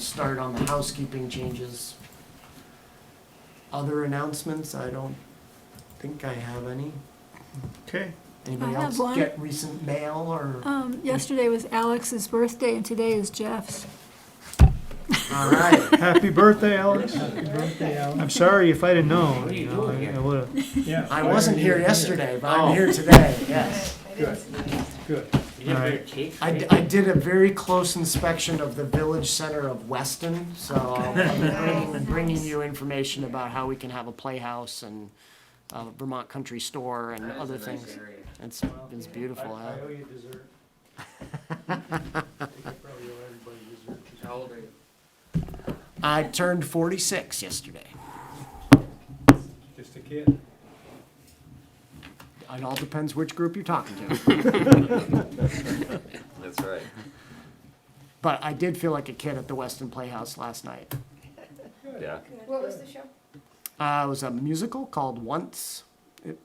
start on the housekeeping changes. Other announcements, I don't think I have any. Okay. Anybody I have else one. get recent mail or? Um, yesterday was Alex's birthday and today is Jeff's. All right, Happy birthday, Alex. Yeah, I'm sorry if I'd have known. What are you know, doing I- here? I would've. I wasn't here Yeah. yesterday, but Oh. I'm here today, yes. Good, good. You didn't Alright. bring a cake? I, d- I did a very close inspection of the village center of Weston, so I'll be bringing, bringing you information about how we can have a playhouse and uh, Vermont Country Store and other things. It's, it's beautiful. I huh? owe you dessert. I think I probably owe everybody dessert. How old are you? I turned forty-six yesterday. Just a kid. It all depends which group you're talking to. That's right. But I did feel like a kid at the Weston Playhouse last night. Yeah. What was the show? Uh, it was a musical called Once. It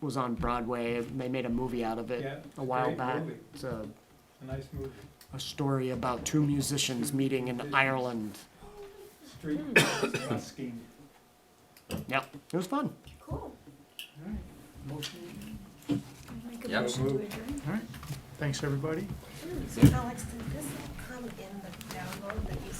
was on Broadway. They made a movie out of it Yeah, a while great back. movie. It's a, A nice movie. a story about two musicians meeting in Ireland. Street Hmm. busking. Yep, it was fun. Cool. Make a Yep. motion to Move. adjourn. Thanks, everybody. So Alex, did this come in the download that you